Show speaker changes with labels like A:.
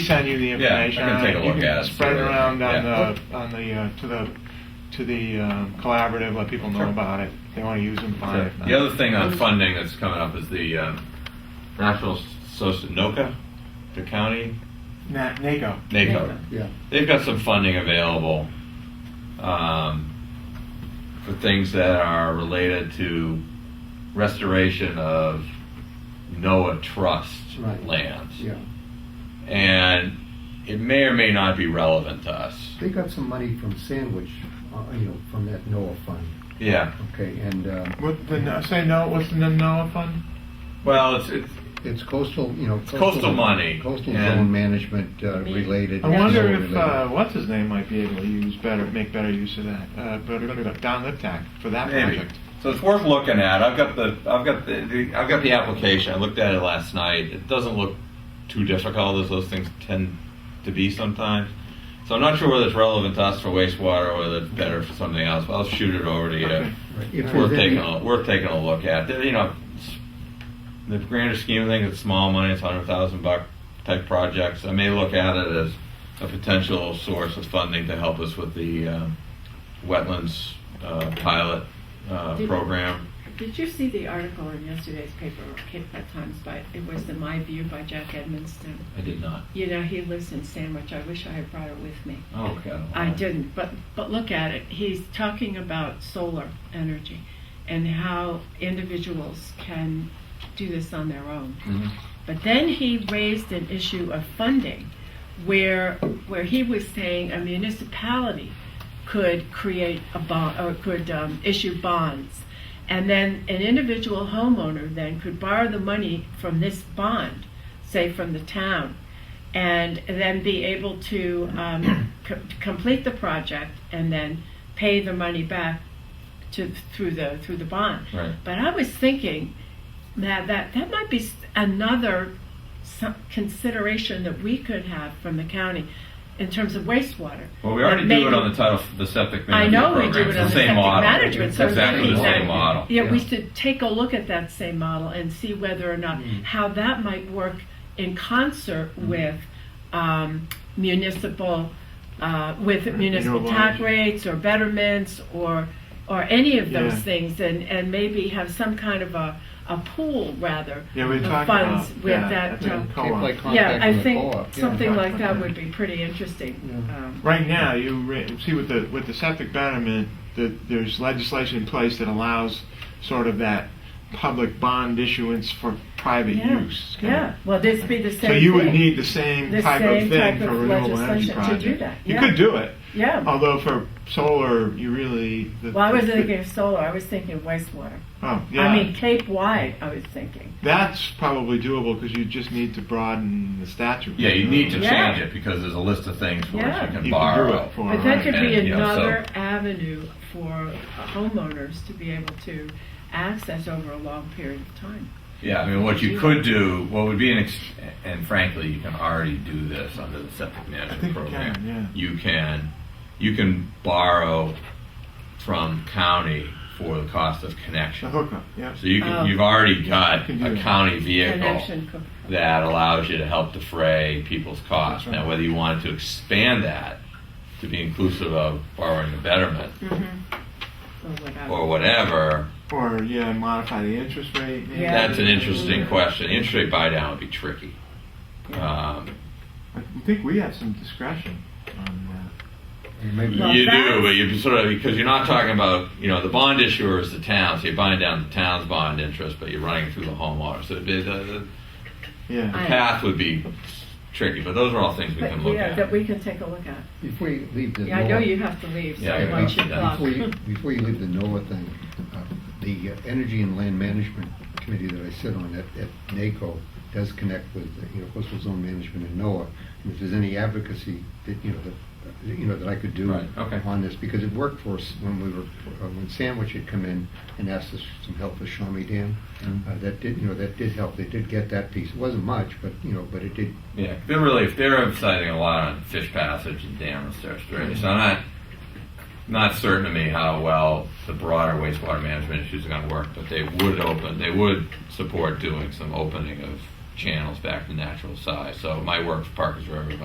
A: send you the
B: Yeah, I
A: information.
B: can
A: on
B: take a look
A: You
B: at
A: can
B: it,
A: spread it
B: see what-
A: around on
B: yeah.
A: the, on the, uh, to the, to the um, collaborative, let people know
B: Sure.
A: about it. If they want to use them, fine. If not-
B: The other thing on funding that's coming up is the um, National Social, NOCA, the county,
A: Na- NACO.
B: NACO.
C: Yeah.
B: They've got some funding available um, for things that are related to restoration of NOAA trust
C: Right.
B: lands.
C: Yeah,
B: And it may or may not be relevant to us.
C: they got some money from Sandwich, uh, you know, from that NOAA fund,
B: Yeah.
C: okay, and um,
A: What, the, no- say no, what's the NOAA fund?
B: Well, it's, it's
C: it's coastal, you know.
B: coastal money,
C: Coastal
B: and-
C: zone management uh, related.
A: I wonder
C: NOAA
A: if,
C: related.
A: uh, what's his name might be able to use better, make better use of that. Uh, but Don Liptak for that
B: Maybe.
A: project.
B: So it's worth looking at. I've got the, I've got the, the, I've got the application. I looked at it last night. It doesn't look too difficult as those things tend to be sometimes. So I'm not sure whether it's relevant to us for wastewater or whether it's better for something else. But I'll shoot it over to you.
A: Okay.
C: Right. If
B: It's
C: there's
B: worth
C: any-
B: taking a, worth taking a look at. There- You know, it's- the grander scheme of things, it's small money. It's hundred thousand buck type projects. I may look at it as a potential source of funding to help us with the uh, wetlands uh, pilot uh,
D: Did-
B: program.
D: Did you see the article in yesterday's paper, Cape Cod Times, by, it was the My View by Jack Edmonston?
B: I did not.
D: You know, he lives in Sandwich, I wish I had brought it with me.
B: Oh, okay.
D: I didn't, but, but look at it, he's talking about solar energy and how individuals can do this on their own.
B: Mhm.
D: But then he raised an issue of funding where, where he was saying a municipality could create a bond, or could um, issue bonds. And then an individual homeowner then could borrow the money from this bond, say from the town, and then be able to um, co- complete the project and then pay the money back to, through the, through the bond.
B: Right.
D: But I was thinking that that, that might be s- another some consideration that we could have from the county in terms of wastewater.
B: Well, we already
D: That
B: do it on
D: maybe-
B: the title, f- the septic
D: I
B: management
D: know we
B: program.
D: do it
B: It's
D: on the
B: same
D: septic
B: model.
D: management, so
B: It's Exactly the
D: exactly.
B: same model.
D: Yeah, we
C: Yeah.
D: should take a look at that same model and see whether or not how that might work in concert with um, municipal, uh, with municipal
A: Renewable
D: tax
A: energy.
D: rates or betterments or or any of those
A: Yeah.
D: things, and and maybe have some kind of a a pool rather
A: Yeah, we
D: of
A: talked about
D: funds
A: that.
D: with that.
A: at the
D: uh,
A: co-op.
C: Like con-
D: yeah, I
C: contacting the
D: think
C: co-op, yeah.
D: something like that would be pretty interesting.
C: Yeah.
D: Um,
A: Right now, you re- see with the with the septic betterment, that there's legislation in place that allows sort of that public bond issuance for private
D: Yeah,
A: use. kinda.
D: Yeah, well, this be the same.
A: So you would
D: thing.
A: need the same
D: The
A: type of
D: same
A: thing
D: type
A: for
D: of
A: renewable energy
D: legislation to
A: projects.
D: do that,
A: You
D: yeah.
A: could do it,
D: Yeah.
A: although for solar, you really. the-
D: Well, I wasn't
A: the-
D: thinking of solar, I was thinking of wastewater.
A: Oh,
D: I
A: yeah,
D: mean, Cape wide, I was thinking.
A: that's probably doable because you just need to broaden the statute.
B: Yeah, you need to
D: Yeah.
B: change it because there's a list of things for which you
D: Yeah.
A: You
B: can
A: can do
B: borrow.
A: it for.
D: But that could be
B: And, you know, so-
D: another avenue for homeowners to be able to access over a long period of time.
B: Yeah, I mean, what you could do, what would be an, ex- and frankly, you can already do this under the septic
A: I think
B: management
A: you
B: program.
A: can, yeah.
B: You can, you can borrow from county for the cost of
A: The
B: connection.
A: hookup, yeah.
B: So you
D: Oh.
B: can, you've already got
A: You can do
B: a
A: that.
B: county vehicle
D: Connection co-
B: that allows you to help defray people's costs.
A: That's right.
B: Now, whether you wanted to expand that to be inclusive of borrowing the betterment
D: or whatever.
B: or whatever,
A: Or, yeah, modify the interest rate. maybe.
D: Yeah.
B: that's an interesting question. Interest rate buy down would be tricky. Um,
A: I think we have some discretion on that.
C: And Maybe
D: Well,
B: you do,
D: that's-
B: but you sort of because you're not talking about you know the bond issuer is the town, so you're buying down the town's bond interest, but you're running it through the homeowner. So it'd be- the, the
A: Yeah.
D: I-
B: path would be tricky, but those are all things we
D: But,
B: can look
D: yeah, that
B: at.
D: we can take a look at.
C: if we leave the NOAA.
D: Yeah, I know you have to leave, so
B: Yeah,
D: I
B: yeah,
D: want you
B: yeah.
D: to
C: Before you, before you leave the NOAA thing, uh, the uh, Energy and Land Management Committee that I sit on at, at NACO does connect with, uh, you know, coastal zone management and NOAA. And if there's any advocacy that, you know, that, uh, you know, that I could do
B: Right, okay.
C: on this, because it worked for us when we were, uh, when Sandwich had come in and asked us for some help with Shawnee Dam.
B: Mm.
C: Uh, That did, you know, that did help. They did get that piece. It wasn't much, but, you know, but it did
B: Yeah, they're really they're emphasizing a lot on fish passage and dam restoration. So I'm not not certain to me how well the broader wastewater management issues are going to work, but they would open they would support doing some opening of channels back to natural size. So my work for Parkers River